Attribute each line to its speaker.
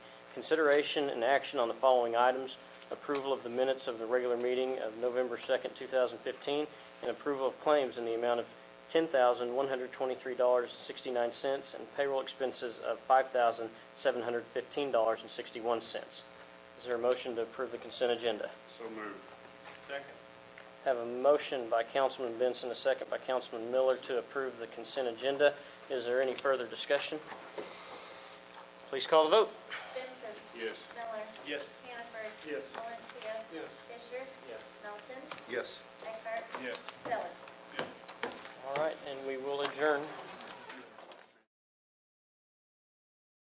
Speaker 1: Consideration and action on the following items: approval of the minutes of the regular meeting of November 2nd, 2015, and approval of claims in the amount of $10,123.69 and payroll expenses of $5,715.61. Is there a motion to approve the consent agenda?
Speaker 2: So moved. Second.
Speaker 1: Have a motion by Councilman Benson, a second by Councilman Miller to approve the consent agenda. Is there any further discussion? Please call the vote.
Speaker 3: Benson.
Speaker 2: Yes.
Speaker 3: Miller.
Speaker 2: Yes.
Speaker 3: Hannaford.
Speaker 2: Yes.
Speaker 3: Valencia.
Speaker 2: Yes.
Speaker 3: Fisher.
Speaker 2: Yes.
Speaker 3: Melton.
Speaker 2: Yes.
Speaker 3: Eckhart.
Speaker 2: Yes.
Speaker 3: Stelling.
Speaker 2: Yes.
Speaker 1: All right, and we will adjourn.